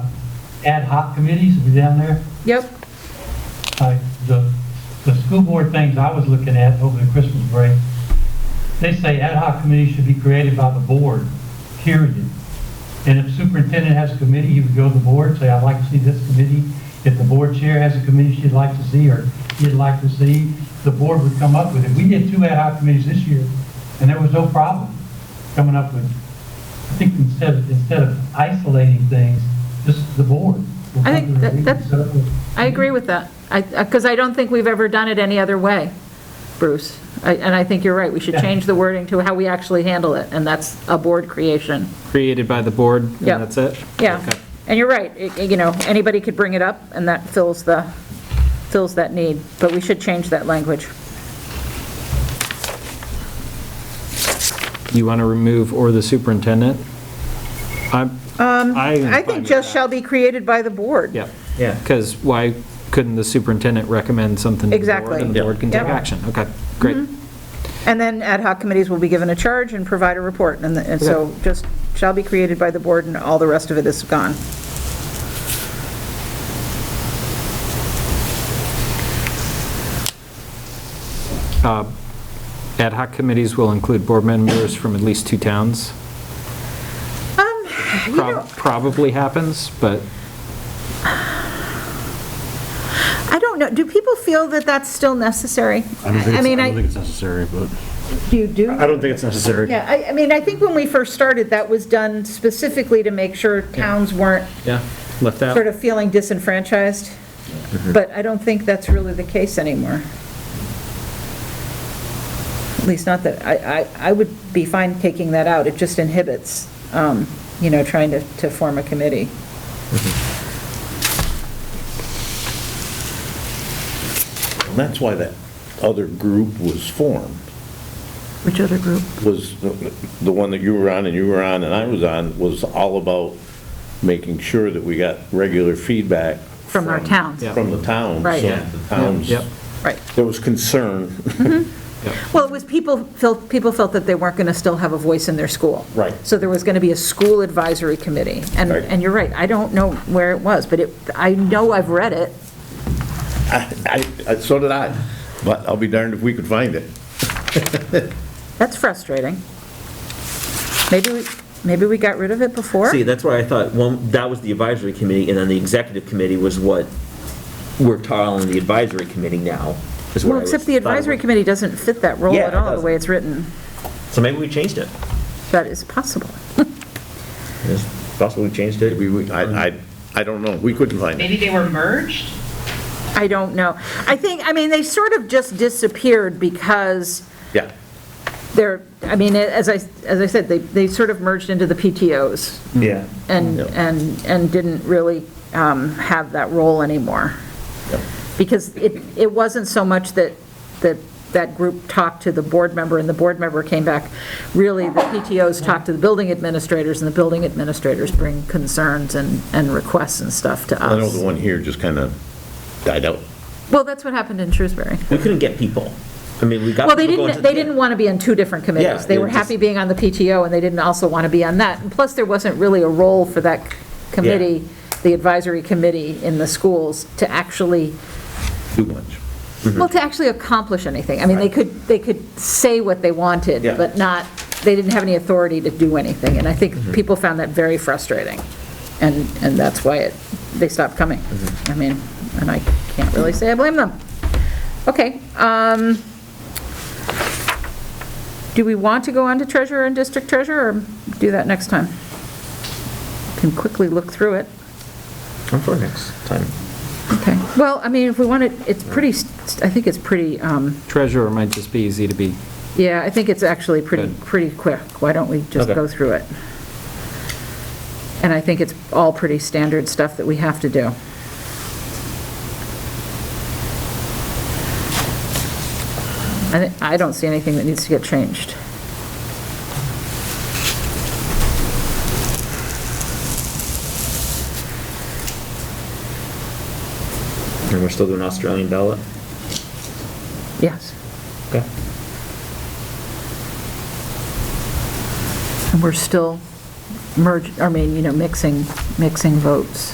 ad hoc committees, were down there? Yep, I- The, the school board things I was looking at over the Christmas break, they say ad hoc committees should be created by the board, period. And if superintendent has a committee, you would go to the board, say, I'd like to see this committee. If the board chair has a committee she'd like to see or he'd like to see, the board would come up with it. We did two ad hoc committees this year, and there was no problem coming up with, I think instead, of- instead of isolating things, just the board. I think that- that's- I agree with that. I, because I don't think we've ever done it any other way, Bruce. I- And I think you're right, we should Yeah. change the wording to how we actually handle it, and that's a board creation. created by the board, and Yeah. that's it? Yeah, Okay. and you're right, It- you know, anybody could bring it up, and that fills the, fills that need, but we should change that language. You want to remove "or the superintendent"? I'm, I am Um, I fine think with just that. shall be created by the board. Yeah, Yeah. because why couldn't the superintendent recommend something to the board? Exactly. And the board can Yeah. Mm-hmm. take action, okay, great. And then ad hoc committees will be given a charge and provide a report, and the- and so just shall be created by the board, and all the rest of it is gone. Ad hoc committees will include board members from at least two towns. Um, you Prob- know, Probably happens, but I don't know, do people feel that that's still necessary? I don't think, mean, it's- I I don't think it's necessary, but, Do you do? I don't think it's necessary. Yeah, I, I mean, I think when we first started, that was done specifically to make sure towns weren't Yeah, left out. sort of feeling disenfranchised, Mm-hmm. but I don't think that's really the case anymore. At least not that, I, I, I would be fine taking that out, it just inhibits, um, you know, trying to, to form a committee. And that's why that other group was formed, Which other group? was the the one that you were on and you were on and I was on, was all about making sure that we got regular feedback. From our towns. Yeah. From the towns. Right. so Yeah. The towns, Yep. Right. there was concern. Well, it was people felt, people felt that they weren't going to still have a voice in their school. Right. So there was going to be a school advisory committee. And, Right. and you're right, I don't know where it was, but it, I know I've read it. I, I- so did I, but I'll be darned if we could find it. That's frustrating. Maybe, we maybe we got rid of it before? See, that's why I thought, one, that was the advisory committee, and then the executive committee was what we're calling the advisory committee now, is what I Well, was. except the thought it advisory was. committee doesn't fit that role at Yeah, it all, the doesn't. way it's written. So maybe we changed it. That is possible. It's possible we changed it. Um, We, we- I, I, I don't know, we couldn't find it. Maybe they were merged? I don't know. I think, I mean, they sort of just disappeared because Yeah, they're, I mean, as I, as I said, they, they sort of merged into the PTOs. Yeah. and, Yep. and, and didn't really um, have that role anymore. Because it, it wasn't so much that, that, that group talked to the board member, and the board member came back, really, the PTOs talked to the building administrators, and the building administrators bring concerns and, and requests and stuff to I know the us. one here just kind of died out. Well, that's what happened in Shrewsbury. We couldn't get people. I mean, we got. Well, they people going to didn't, they the- didn't want to be on two different committees. Yeah, They they were just- happy being on the PTO, and they didn't also want to be on that. And plus, there wasn't really a role for that committee, the advisory committee in the schools, to actually, Too much. well, to actually accomplish anything. I mean, they could, they could say what they wanted, Yeah. but not, they didn't have any authority to do anything. And I think people found that very frustrating. And, and that's why it, they stopped coming. I mean, and I can't really say I blame them. Okay, um, do we want to go on to treasurer and district treasurer, or do that next time? Can quickly look through it. I'm for next time. Okay, well, I mean, if we want it, it's pretty, st- I think it's pretty, um, Treasurer might just be easy to be. yeah, I think it's actually pretty, Good. pretty quick. Why don't we just Okay. go through it? And I think it's all pretty standard stuff that we have to do. I thi- I don't see anything that needs to get changed. And we're still doing Australian ballot? Yes. Okay. And we're still merge, I mean, you know, mixing, mixing votes.